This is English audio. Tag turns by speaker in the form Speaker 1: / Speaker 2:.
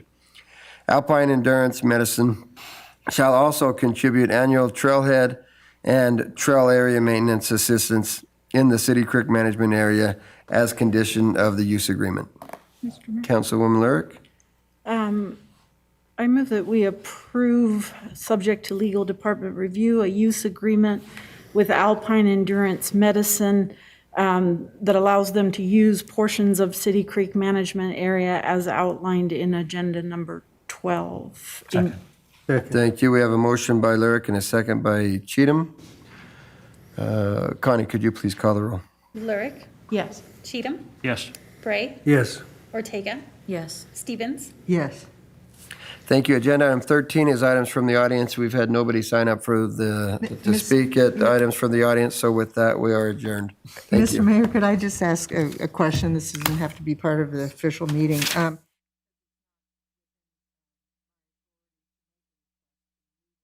Speaker 1: Alpine Endurance Medicine shall also contribute annual trailhead and trail area maintenance assistance in the City Creek Management Area as condition of the use agreement. Councilwoman Lyric?
Speaker 2: I move that we approve, subject to legal department review, a use agreement with Alpine Endurance Medicine um, that allows them to use portions of City Creek Management Area as outlined in Agenda Number 12. in-
Speaker 1: Thank you. We have a motion by Lyric and a second by Cheatham. Uh, Connie, could you please call the roll?
Speaker 3: Lurick,
Speaker 4: Yes.
Speaker 3: Cheatham,
Speaker 5: Yes.
Speaker 3: Bray,
Speaker 6: Yes.
Speaker 3: Ortega,
Speaker 4: Yes.
Speaker 3: Stevens,
Speaker 7: yes,
Speaker 1: Thank you. Agenda item 13 is items from the audience. We've had nobody sign up for the, to
Speaker 7: Miss-
Speaker 1: speak at items from the audience, so with that, we are adjourned. Thank you.
Speaker 7: Mr. Mayor, could I just ask a a question? This doesn't have to be part of the official meeting. Um,